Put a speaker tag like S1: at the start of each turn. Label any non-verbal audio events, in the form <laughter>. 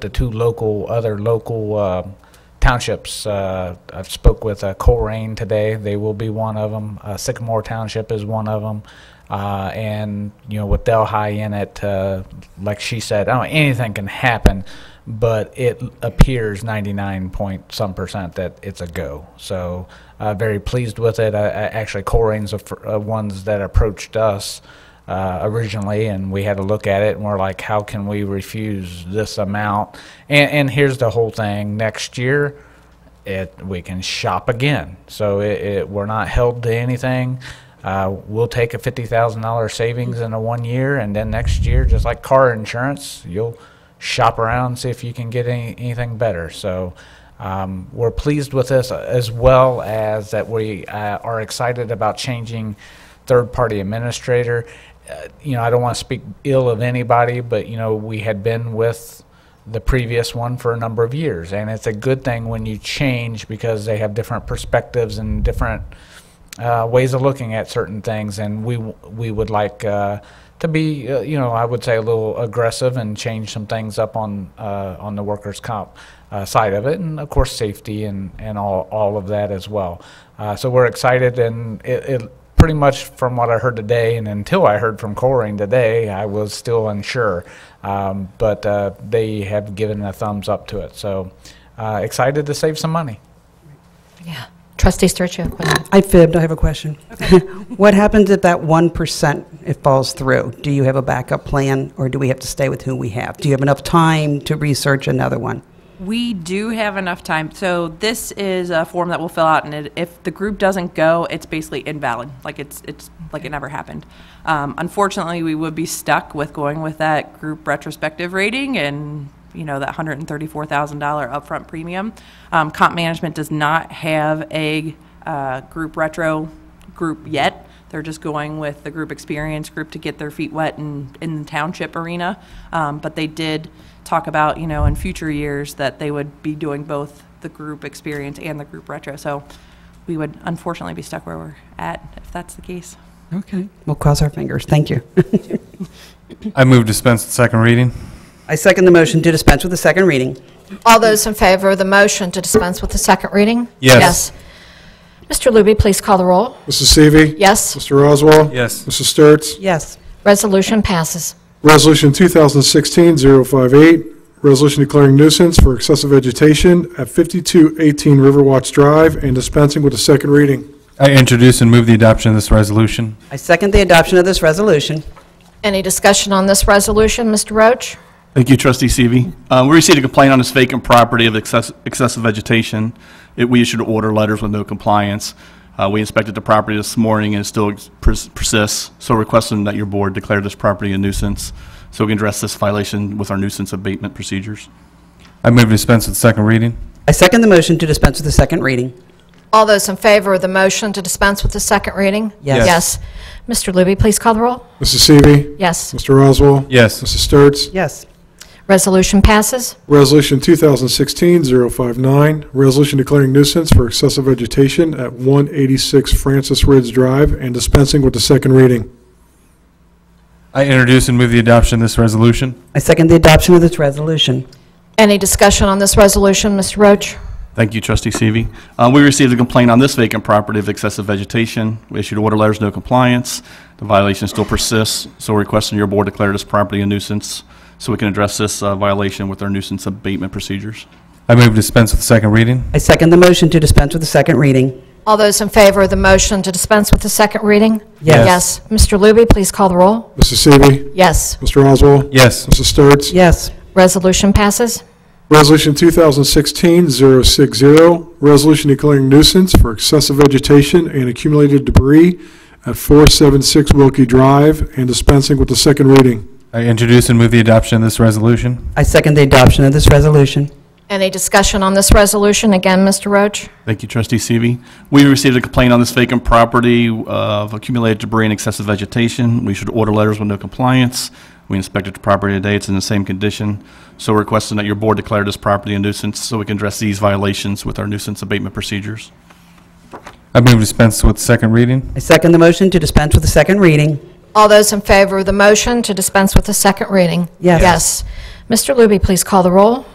S1: the two local, other local um, townships. uh, I've spoke with uh, Colerain today, they will be one of them. Sycamore Township is one of them. And, you know, with Delhi in it, uh, like she said, I don't, anything can happen, but it appears 99 point some percent that it's a go. So uh, very pleased with it. I- I- Actually, Colerain's the fir- uh, ones that approached us uh, originally, and we had to look at it, and we're like, how can we refuse this amount? And, and here's the whole thing: next year, it we can shop again. So it, it we're not held to anything. Uh, we'll take a fifty thousand dollar savings in a one year, and then next year, just like car insurance, you'll shop around see if you can get any, anything better. So. Um, we're pleased with this as well as that we uh, are excited about changing third-party administrator. Uh, You know, I don't want to speak ill of anybody, but, you know, we had been with the previous one for a number of years. And it's a good thing when you change because they have different perspectives and different uh, ways of looking at certain things. And we, w- we would like uh, to be, uh, you know, I would say a little aggressive and change some things up on, uh, on the workers' comp uh, side of it. And of course, safety and, and all, all of that as well. Uh, So we're excited and it, it pretty much from what I heard today, and until I heard from Coring today, I was still unsure. Um, but uh, they have given a thumbs up to it. So uh, excited to save some money.
S2: Yeah. Trustee Sturts, you have a question?
S3: I fibbed, I have a question. <laughs> What happens if that 1%, it falls through? Do you have a backup plan, or do we have to stay with who we have? Do you have enough time to research another one?
S4: We do have enough time. So this is a form that we'll fill out, and it, if the group doesn't go, it's basically invalid. Like it's it's like it never happened. Um, unfortunately, we would be stuck with going with that group retrospective rating and you know that hundred and thirty-four thousand dollar upfront premium. Um, comp management does not have a uh, group retro group yet. They're just going with the group experience group to get their feet wet in, in the township arena. Um, but they did talk about, you know, in future years that they would be doing both the group experience and the group retro. So we would unfortunately be stuck where we're at if that's the case.
S3: Okay. We'll cross our fingers, thank you. <laughs>
S5: I move dispense with second reading.
S3: I second the motion to dispense with the second reading.
S2: All those in favor of the motion to dispense with the second reading?
S5: Yes.
S2: Yes. Mr. Looby, please call the roll.
S6: Mrs. Seavey.
S2: Yes,
S6: Mr. Oswald.
S5: Yes.
S6: Mrs. Sturts.
S3: Yes.
S2: resolution passes.
S6: Resolution 2016-058, resolution declaring nuisance for excessive vegetation at 5218 Riverwatch Drive and dispensing with a second reading.
S5: I introduce and move the adoption of this resolution.
S3: I second the adoption of this resolution.
S2: Any discussion on this resolution, Mr. Roach?
S7: Thank you, trustee Seavey. Uh, We received a complaint on this vacant property of excess- excessive vegetation. It- We issued order letters with no compliance. Uh, We inspected the property this morning and it still ex- pers- persists, so requesting that your board declare this property a nuisance so we can address this violation with our nuisance abatement procedures.
S5: I move dispense with second reading.
S3: I second the motion to dispense with the second reading.
S2: All those in favor of the motion to dispense with the second reading?
S3: Yes.
S2: Yes. Mr. Looby, please call the roll.
S6: Mrs. Seavey.
S2: Yes,
S6: Mr. Oswald.
S5: Yes.
S6: Mrs. Sturts.
S3: Yes.
S2: resolution passes.
S6: Resolution 2016-059, resolution declaring nuisance for excessive vegetation at 186 Francis Ridge Drive and dispensing with the second reading.
S5: I introduce and move the adoption of this resolution.
S3: I second the adoption of this resolution.
S2: Any discussion on this resolution, Mr. Roach?
S7: Thank you, trustee Seavey. Uh, We received a complaint on this vacant property of excessive vegetation. We issued order letters, no compliance. The violation still persists, so requesting your board declare this property a nuisance so we can address this uh, violation with our nuisance abatement procedures.
S5: I move dispense with second reading.
S3: I second the motion to dispense with the second reading.
S2: All those in favor of the motion to dispense with the second reading?
S5: Yes.
S2: Yes. Mr. Looby, please call the roll.
S6: Mrs. Seavey.
S2: Yes,
S6: Mr. Oswald.
S5: Yes.
S6: Mrs. Sturts.
S3: Yes.
S2: resolution passes.
S6: Resolution 2016-060, resolution declaring nuisance for excessive vegetation and accumulated debris at 476 Wilkie Drive and dispensing with the second reading.
S5: I introduce and move the adoption of this resolution.
S3: I second the adoption of this resolution.
S2: Any discussion on this resolution? Again, Mr. Roach?
S7: Thank you, trustee Seavey. We received a complaint on this vacant property uh, of accumulated debris and excessive vegetation. We should order letters with no compliance. We inspected the property today, it's in the same condition. So we're requesting that your board declare this property a nuisance so we can address these violations with our nuisance abatement procedures.
S5: I move dispense with second reading.
S3: I second the motion to dispense with the second reading.
S2: All those in favor of the motion to dispense with the second reading?
S3: Yes.
S2: Yes. Mr. Luby, please call the roll.